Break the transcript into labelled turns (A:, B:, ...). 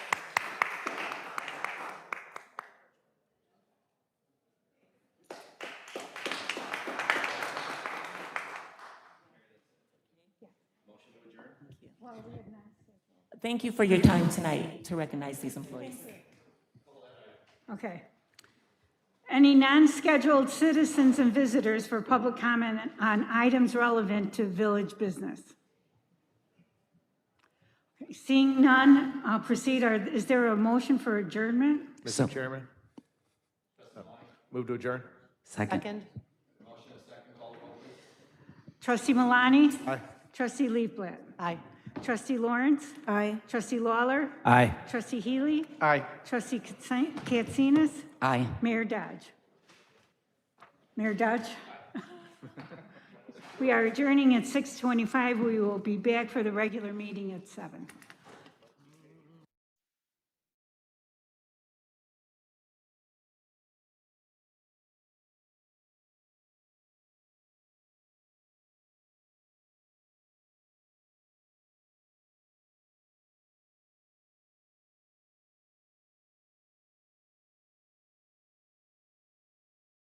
A: Thank you for your time tonight to recognize these employees.
B: Okay. Any non-scheduled citizens and visitors for public comment on items relevant to village business? Seeing none, I'll proceed. Are- Is there a motion for adjournment?
C: Mr. Chairman? Move to adjourn?
D: Second.
A: Second?
B: Trustee Malani?
C: Aye.
B: Trustee Leafblat?
A: Aye.
B: Trustee Lawrence?
A: Aye.
B: Trustee Lawler?
D: Aye.
B: Trustee Healy?
C: Aye.
B: Trustee Katsin- Katsinas?
D: Aye.
B: Mayor Dodge. Mayor Dodge? We are adjourning at 6:25. We will be back for the regular meeting at seven.